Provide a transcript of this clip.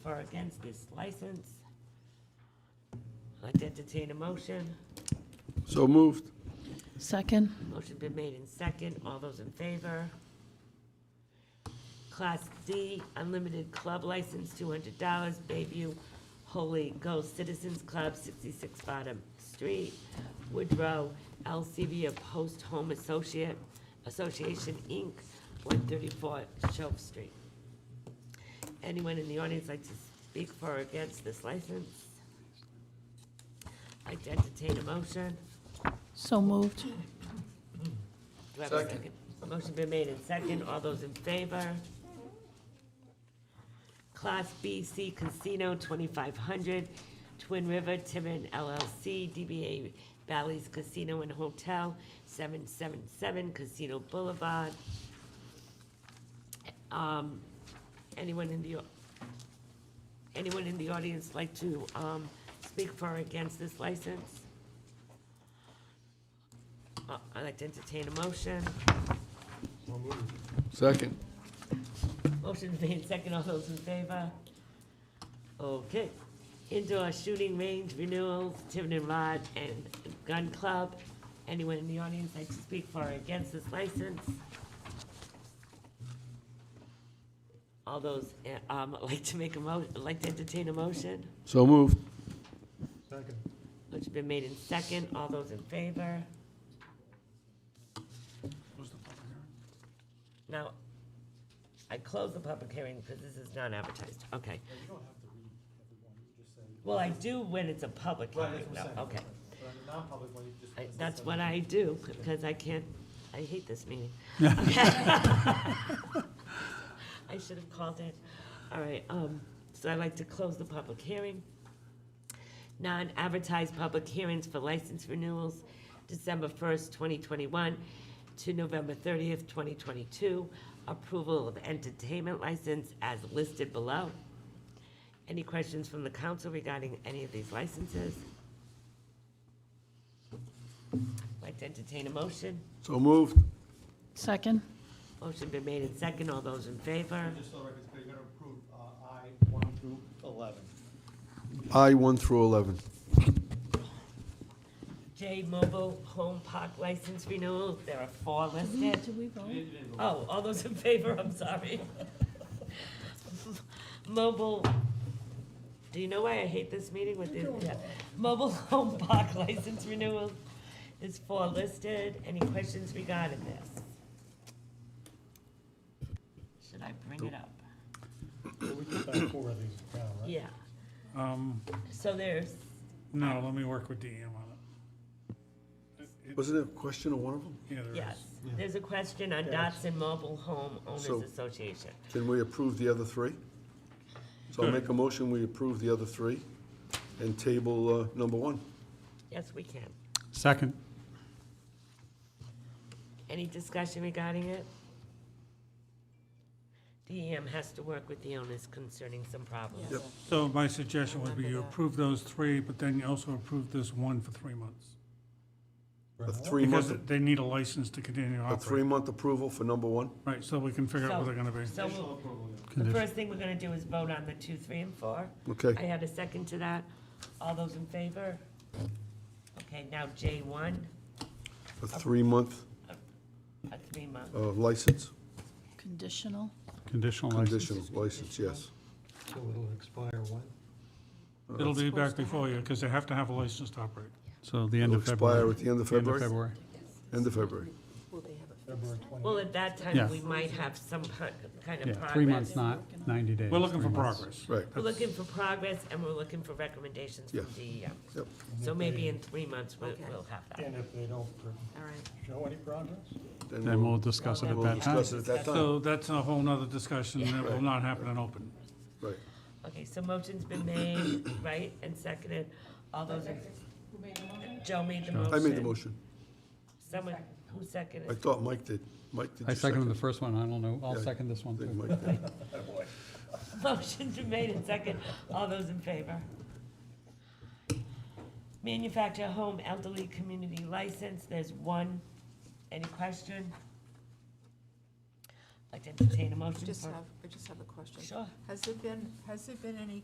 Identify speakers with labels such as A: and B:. A: or against this license. I'd like to entertain a motion.
B: So moved.
C: Second?
A: Motion been made in second. All those in favor? Class D, unlimited club license, two hundred dollars, Bayview Holy Ghost Citizens Club, sixty-six Bottom Street, Woodrow, LCB of Post Home Associate, Association, Inc., one thirty-four Shelf Street. Anyone in the audience like to speak for or against this license? Like to entertain a motion?
C: So moved.
A: Do I have a second? Motion been made and second, all those in favor? Class BC Casino, twenty-five hundred, Twin River Timmon LLC, DBA Bally's Casino and Hotel, seven-seven-seven Casino Boulevard. Um, anyone in the, au- anyone in the audience like to, um, speak for or against this license? Uh, I'd like to entertain a motion.
B: Second.
A: Motion made second, all those in favor? Okay. Indoor shooting range renewals, Tiverton Rod and Gun Club. Anyone in the audience like to speak for or against this license? All those, eh, um, like to make a mo, like to entertain a motion?
B: So moved.
A: Motion been made in second, all those in favor? Now, I close the public hearing because this is not advertised, okay. Well, I do when it's a public hearing,
D: that's what
A: no,
D: I'm saying.
A: okay.
D: But on the non-public one, you just.
A: I- That's what I do, because I can't, I hate this meeting. I should have called it. All right, um, so I'd like to close the public hearing. Non-advertised public hearings for license renewals, December first, twenty twenty-one to November thirtieth, twenty twenty-two. Approval of entertainment license as listed below. Any questions from the council regarding any of these licenses? Like to entertain a motion?
B: So moved.
C: Second?
A: Motion been made and second, all those in favor?
D: Just so the record's clear, you're gonna approve, uh, I one through eleven.
B: I one through 11.
A: J Mobile Home Park License Renewal, there are four listed.
C: Did we vote?
A: Oh, all those in favor, I'm sorry. Mobile, do you know why I hate this meeting with the, yeah. Mobile Home Park License Renewal is four listed. Any questions regarding this? Should I bring it up?
D: We took back four of these down, right?
A: Yeah,
E: Um,
A: so there's,
E: no, let me work with DM on it. It-
B: Wasn't there a question on one of them?
E: Yeah, there
A: yes,
E: is.
A: there's a question on Dotson Mobile Home
B: So-
A: Owners Association.
B: Can we approve the other three? So I'll make a motion, we approve the other three and table uh, number one.
A: Yes, we can.
E: Second.
A: Any discussion regarding it? DEM has to work with the owners concerning some problems.
B: Yep.
E: So my suggestion would be you
A: Remember that.
E: approve those three, but then you also approve this one for three months.
B: A
E: Because
B: three-month,
E: they need a license to continue
B: a
E: operating.
B: three-month approval for number one?
E: Right, so we can figure out what they're gonna be.
A: So we'll- the first thing we're gonna do is vote on the two, three, and four.
B: Okay.
A: I had a second to that. All those in favor? Okay, now J one,
B: A three-month
A: a three-month.
B: uh, license,
C: Conditional?
F: Oh,
E: Conditional
B: conditional license, yes.
D: So it'll expire when?
E: It'll be back before you, because they have to have a license to operate.
F: So the end
B: It'll
F: of February.
B: expire at the end of
F: The end of
B: February? End of February.
D: February twenty.
A: Well, at that time,
F: Yeah.
A: we might have some kin- kind of
F: Yeah, three months,
A: progress.
F: not 90 days.
E: We're looking for
F: three months.
E: progress.
B: Right,
A: We're looking for progress, and we're looking for recommendations from
B: Yes.
A: DEM.
B: yep.
A: So maybe in three months, we'll,
G: Okay.
A: we'll have that.
D: And if they don't pr-
G: All right.
D: show any progress?
F: Then we'll discuss it at
B: we'll
F: that time.
B: discuss it at that time,
E: So that's a whole nother discussion that will
B: Right.
E: not happen in open.
B: right.
A: Okay, so motion's been made, right, and seconded, all those in. Joe made the motion.
B: I made the motion.
A: Someone, who seconded?
B: I thought Mike did. Mike, did
F: I
B: you
F: seconded
B: second?
F: the first one, I don't know, I'll
B: Yeah,
F: second this
B: I
F: one
B: think
F: too.
B: Mike did.
A: Motion's been made and second, all those in favor? Manufacture home elderly community license, there's one, any question? Like to entertain a motion
G: Just
A: for?
G: have, I just have a question.
A: Sure.
G: Has there been, has there been any